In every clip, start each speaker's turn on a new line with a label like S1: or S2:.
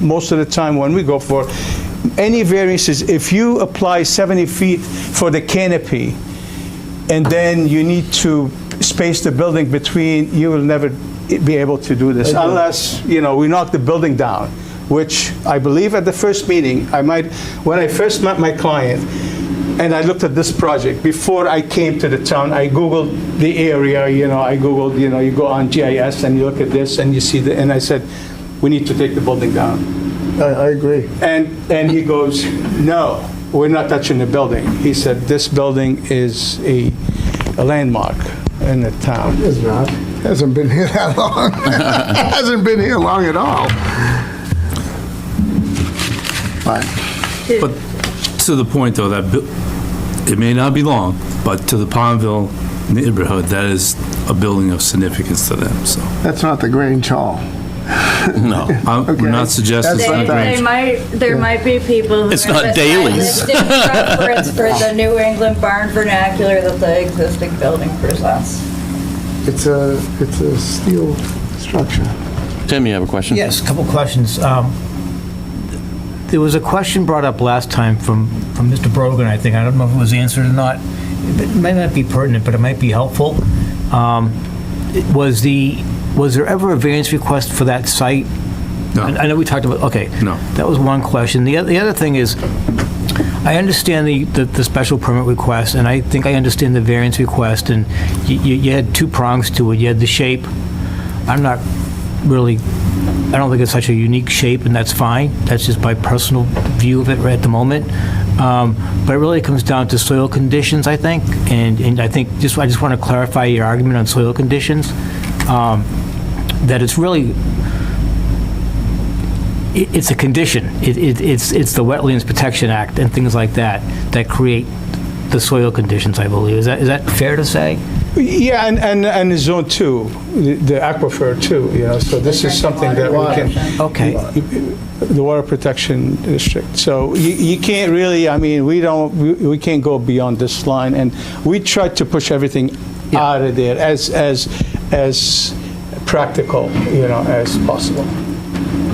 S1: most of the time when we go for any variances, if you apply 70 feet for the canopy, and then you need to space the building between, you will never be able to do this unless, you know, we knock the building down, which I believe at the first meeting, I might, when I first met my client, and I looked at this project, before I came to the town, I Googled the area, you know, I Googled, you know, you go on GIS and you look at this and you see the, and I said, we need to take the building down.
S2: I, I agree.
S1: And, and he goes, no, we're not touching the building. He said, this building is a a landmark in the town.
S2: It's not. Hasn't been here that long. Hasn't been here long at all. But
S3: But to the point, though, that bu- it may not be long, but to the Palmville neighborhood, that is a building of significance to them, so.
S2: that's not the Grange Hall.
S4: No.
S3: I'm- We're not
S2: Okay.
S3: suggesting
S2: That's
S3: it's
S2: what
S3: not
S2: I thought.
S3: great.
S5: They, they might, there might be people who.
S4: It's
S5: are
S4: not
S5: just
S4: dailies.
S5: stylistic preference for the New England barn vernacular that the existing building presents.
S2: It's a, it's a steel structure.
S4: Tim, you have a question?
S6: Yes, a couple questions. Um, There was a question brought up last time from, from Mr. Brogan, I think. I don't know if it was answered or not. It might not be pertinent, but it might be helpful. Um, it- Was the, was there ever a variance request for that site?
S3: No.
S6: I I know we talked about, okay.
S3: No.
S6: That was one question. The oth- the other thing is, I understand the, the, the special permit request, and I think I understand the variance request, and you, you you had two prongs to it. You had the shape. I'm not really, I don't think it's such a unique shape, and that's fine. That's just my personal view of it right at the moment. Um, But it really comes down to soil conditions, I think, and, and I think, just, I just want to clarify your argument on soil conditions, um, that it's really, it- it's a condition. It- it- It's it's the Wetlands Protection Act and things like that that create the soil conditions, I believe. Is that is that fair to say?
S1: Yeah, and, and, and the zone two, the the aquifer too, you know, so this is something that we can,
S6: Okay.
S1: the water protection district. So you, you can't really, I mean, we don't, we- we can't go beyond this line. And we try to push everything out of there as, as, as practical, you know, as possible.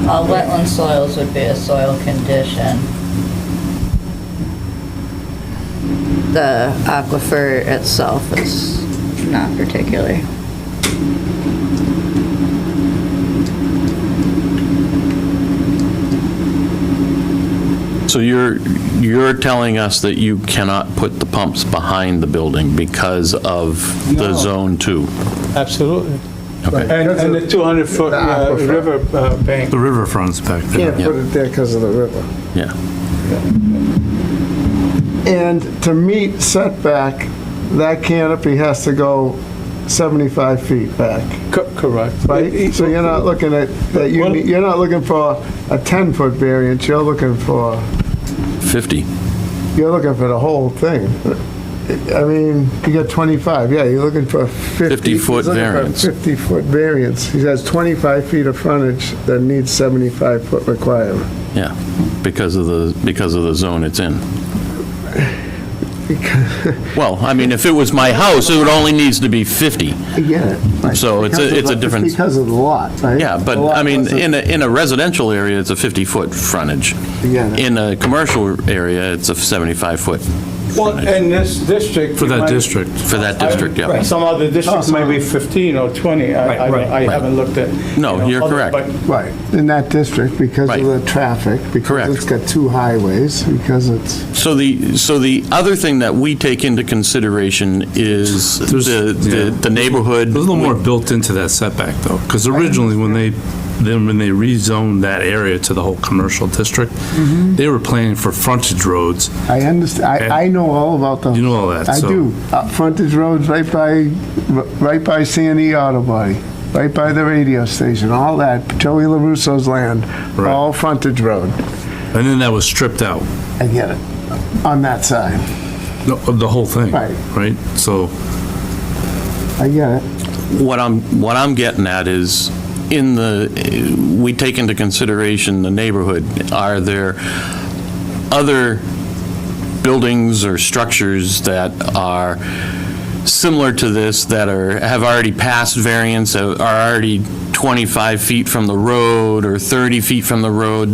S5: Uh, wetland soils would be a soil condition. The aquifer itself is not particular.
S4: So you're, you're telling us that you cannot put the pumps behind the building because of the
S1: No.
S4: zone two?
S1: Absolutely.
S4: Okay.
S1: And, and the 200-foot
S2: The
S1: uh,
S2: aquifer.
S1: river uh, bank.
S3: The riverfront's back there.
S2: Can't put it there because of the river.
S4: Yeah.
S2: And to meet setback, that canopy has to go 75 feet back,
S1: Co- Correct.
S2: right? So you're not looking at, that you,
S1: Well-
S2: need- you're not looking for a 10-foot variance, you're looking for,
S4: 50.
S2: you're looking for the whole thing. I mean, you got 25, yeah, you're looking for 50.
S4: 50-foot variance.
S2: 50-foot variance. He has 25 feet of frontage that needs 75-foot requirement.
S4: Yeah, because of the, because of the zone it's in. Well, I mean, if it was my house, it would only needs to be 50.
S2: I get it. right.
S4: So it's a-
S2: Because of
S4: it's a
S2: the-
S4: difference.
S2: Because of the lot, right?
S4: Yeah, but,
S2: The lot
S4: I mean,
S2: doesn't-
S4: in a, in a residential area, it's a 50-foot frontage.
S2: Yeah.
S4: In a commercial area, it's a 75-foot
S1: Well, in this district.
S3: For
S1: you
S3: that
S1: might-
S3: district.
S4: for that district, yeah.
S1: Right, Some other districts might be 15 or 20. I-
S6: Right,
S1: I don't-
S6: right,
S1: I
S4: right.
S1: haven't looked at.
S4: No,
S1: you know,
S4: you're
S1: other-
S4: correct.
S1: but-
S2: Right, in that district because of
S4: Right.
S2: the traffic.
S4: Correct.
S2: Because it's got two highways, because it's,
S4: So the, so the other thing that we take into consideration is
S3: There's-
S4: the, the-
S3: yeah.
S4: the neighborhood.
S3: There's a little more built into that setback, though, because originally, when they, then when they rezoned that area to the whole commercial district,
S2: Mm-hmm.
S3: they were planning for frontage roads.
S2: I understand, I, I know all about those.
S3: You know all that,
S2: I
S3: so-
S2: do. Uh, Frontage roads right by, right by Sandy Auto Body, right by the radio station, all that, Joey LaRusso's land,
S3: Right.
S2: all frontage road.
S3: And then that was stripped out,
S2: I get it, on that side.
S3: no, of the whole thing.
S2: Right.
S3: Right? So,
S2: I get it.
S4: What I'm, what I'm getting at is, in the, we take into consideration the neighborhood. Are there other buildings or structures that are similar to this, that are, have already passed variance, are already 25 feet from the road or 30 feet from the road,